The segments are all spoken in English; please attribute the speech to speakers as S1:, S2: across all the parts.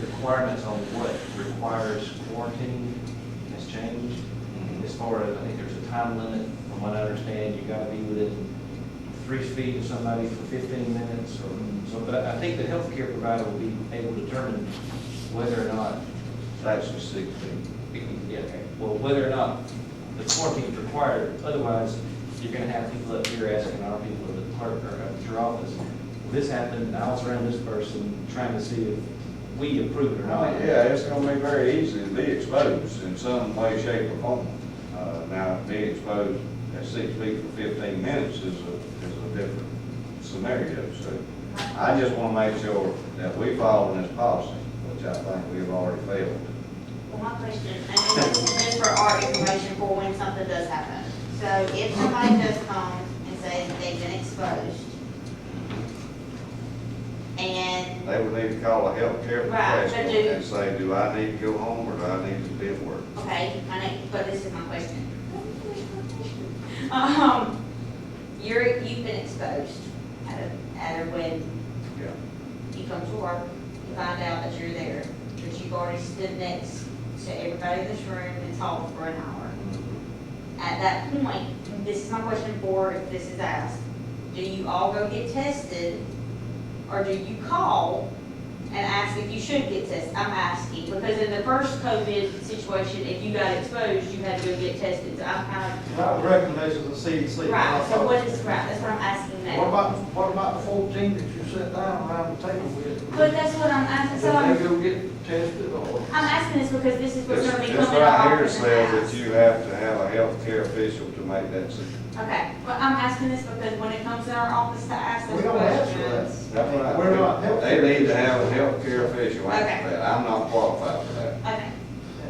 S1: requirements on what requires quarantine has changed. As far as, I think there's a time limit, from what I understand, you gotta be within three feet of somebody for fifteen minutes or, so, but I think the healthcare provider will be able to determine whether or not.
S2: That's the sixth thing.
S1: Yeah, okay. Well, whether or not the quarantine is required, otherwise, you're gonna have people up here asking our people at the clerk or at your office, "Well, this happened, I was around this person, trying to see if we approve it or not.
S2: Oh, Yeah, it's gonna be very easy to be exposed in some way, shape, or form. Uh, now, being exposed at six feet for fifteen minutes is a, is a different scenario, so I just wanna make sure that we follow this policy, which I think we've already failed.
S3: Well, my question, and this is just for our information for when something does happen. So if somebody does come and say that they've been exposed, and,
S2: They would need to call a healthcare
S3: Right, so
S2: professional
S3: do-
S2: and say, do I need to go home or do I need to be at work?
S3: okay, my next, but this is my question. Um, you're, you've been exposed at a, at a, when
S2: Yeah.
S3: you come to work, you find out that you're there, that you've already stood next to everybody in this room and talked for an hour. At that point, this is my question for if this is asked, do you all go get tested? Or do you call and ask if you should get tested? I'm asking, because in the first COVID situation, if you got exposed, you had to go get tested, so I'm kind
S4: Right, the recommendations of CDC.
S3: of, right, so what is, right, that's what I'm asking
S4: What
S3: now.
S4: about, what about the fourteen that you sat down around the table with?
S3: But that's what I'm asking,
S4: Did
S3: so I'm.
S4: they go get tested or?
S3: I'm asking this because this is what's
S2: This,
S3: gonna be
S2: this
S3: coming
S2: right here
S3: off.
S2: says that you have to have a healthcare official to make that decision.
S3: Okay, but I'm asking this because when it comes to our office to ask
S4: We
S3: those
S4: don't answer that.
S3: questions.
S2: That's right.
S4: We're not healthcare.
S2: They need to have a healthcare official, I
S3: Okay.
S2: that, I'm not qualified for that.
S3: Okay,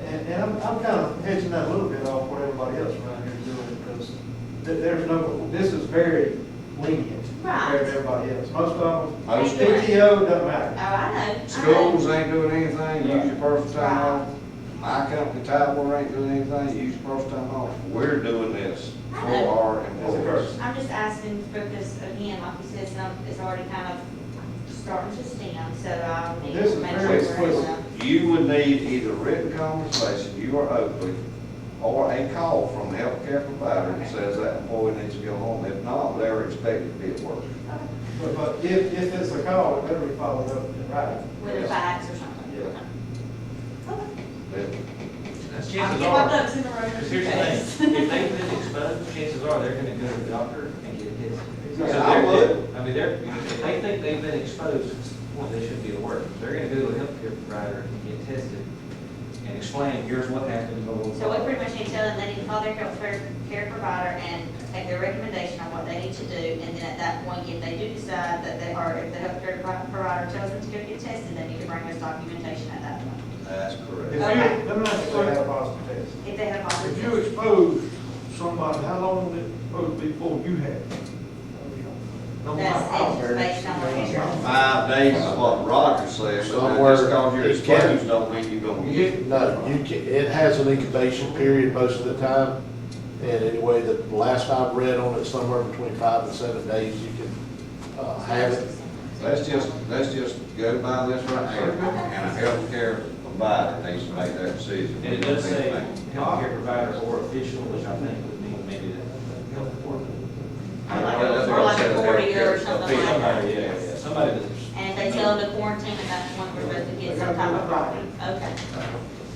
S4: And, and I'm, I'm kind of hedging that a little bit off what everybody else around here is doing because th- there's no, this is very lenient
S3: Right.
S4: compared to everybody else. Most of them,
S2: Most
S3: Thank you.
S4: PTO doesn't
S3: oh,
S4: matter.
S3: I know. I know.
S2: schools ain't doing anything, use your personal time
S3: Right.
S2: off. My company, Tyler, ain't doing anything, use your personal time off. We're doing this for our employees.
S3: I'm just asking because again, like you said, some, it's already kind of starting to stem, so I'll need
S4: This
S3: to
S4: is
S3: make
S4: very
S3: sure we're
S4: explicit.
S3: enough.
S2: You would need either written conversation, you or Oakley, or a call from the healthcare provider that says that employee needs to go home. If not, they're expected to be at work.
S4: But, but if, if it's a call, it better be followed up in writing.
S3: With a fax or something.
S4: Yeah.
S3: Okay.
S2: They-
S3: I'll
S1: Chances
S3: get my
S1: are,
S3: ducks in a row.
S1: because here's the thing, if they've been exposed, chances are they're gonna go to the doctor and get tested. So
S2: Yeah, I
S1: they're-
S2: would.
S1: I mean, they're, if they think they've been exposed, well, they should be at work. They're gonna go to a healthcare provider and get tested and explain, here's what happened. blah, blah, blah.
S3: So we pretty much need to tell them they need to call their healthcare care provider and take their recommendation on what they need to do. And then at that point, if they do decide that they, or if the healthcare provi- provider tells them to go get tested, they need to bring us documentation at that point.
S2: That's
S4: If
S2: correct.
S4: you, let me ask you, if they had a positive test.
S3: If they have all
S4: If
S3: this.
S4: you expose somebody, how long would it supposed to be before you had? it? No,
S3: That's
S4: I-
S3: it, based on what you're.
S2: Five days is what Roger says, but
S5: Somewhere
S2: just cause you're
S5: he can-
S2: exposed don't mean you're gonna get it.
S5: No, you can, it has an incubation period most of the time. And anyway, the last I've read on it, somewhere between five and seven days, you can, uh, have it.
S2: Let's just, let's just go by this right here, and a healthcare provider needs to make that decision.
S1: And it does say healthcare provider or official, which I think would mean maybe the the health department.
S3: Or like, or like a forty or something like that.
S1: Somebody, yeah, yeah, yeah, somebody that's.
S3: And if they tell them to quarantine at that point, we're supposed to get some type of property. Okay.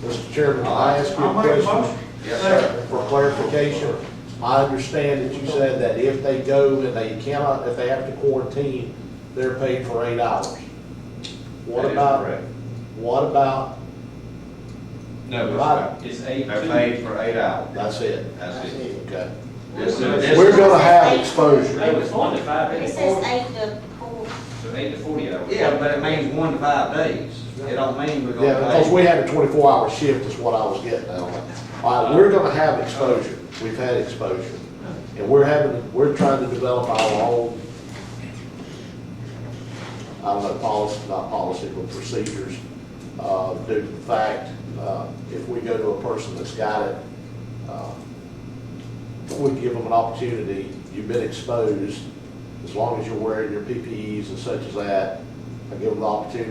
S5: Mr. Chairman, can I ask you
S4: I'll
S5: a
S4: make a motion.
S5: question?
S2: Yes, sir.
S5: For clarification, I understand that you said that if they go and they cannot, if they have to quarantine, they're paid for eight hours. What
S2: That is
S5: about,
S2: correct.
S5: what about,
S2: No, it's
S5: Right.
S2: not.
S1: It's eight
S2: They're
S1: two.
S2: paid for eight hours.
S5: that's it?
S2: That's it.
S5: Okay.
S2: This is-
S1: We're
S2: this
S5: We're
S2: is-
S5: gonna have exposure.
S1: No, it's one to five
S3: It
S1: days,
S3: says eight to four.
S1: so eight to forty hours.
S2: Yeah, but it means one to five days. It don't mean we're
S5: Yeah,
S2: gonna
S5: because
S2: pay.
S5: we had a twenty-four hour shift is what I was getting at. All right, we're gonna have exposure. We've had exposure. And we're having, we're trying to develop our own, I don't know, policy, not policy, but procedures, uh, due to the fact, uh, if we go to a person that's got it, uh, we give them an opportunity, you've been exposed, as long as you're wearing your PPEs and such as that, I give them the opportunity